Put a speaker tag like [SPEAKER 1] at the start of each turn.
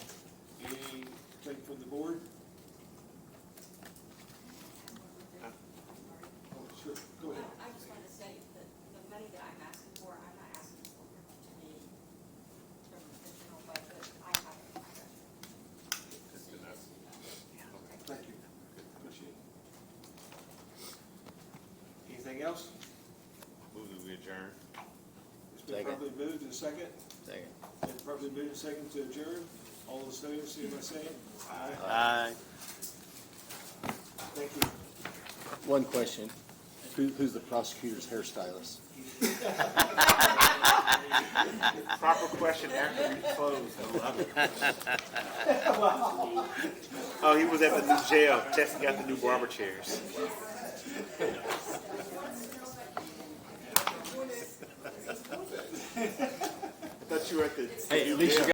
[SPEAKER 1] the board? Oh, sure, go ahead.
[SPEAKER 2] I just wanted to say that the money that I'm asking for, I'm not asking for to be from the general budget, I have it in my budget.
[SPEAKER 3] That's
[SPEAKER 2] So
[SPEAKER 3] good
[SPEAKER 2] you
[SPEAKER 3] enough.
[SPEAKER 2] just do that.
[SPEAKER 1] Thank you. Appreciate it. Anything else?
[SPEAKER 3] Move that we adjourn.
[SPEAKER 1] It's been
[SPEAKER 4] Second.
[SPEAKER 1] properly moved and second,
[SPEAKER 4] Second.
[SPEAKER 1] been properly moved and second to adjourn. All those favors, see what I say? Aye.
[SPEAKER 4] Aye.
[SPEAKER 1] Thank you.
[SPEAKER 5] One question. Who, who's the prosecutor's hairstylist?
[SPEAKER 3] Proper question after we close, I love it. Oh, he was at the new jail, testing out the new barber chairs. I thought you were at the
[SPEAKER 4] Hey,
[SPEAKER 3] new
[SPEAKER 4] at least you
[SPEAKER 3] jail.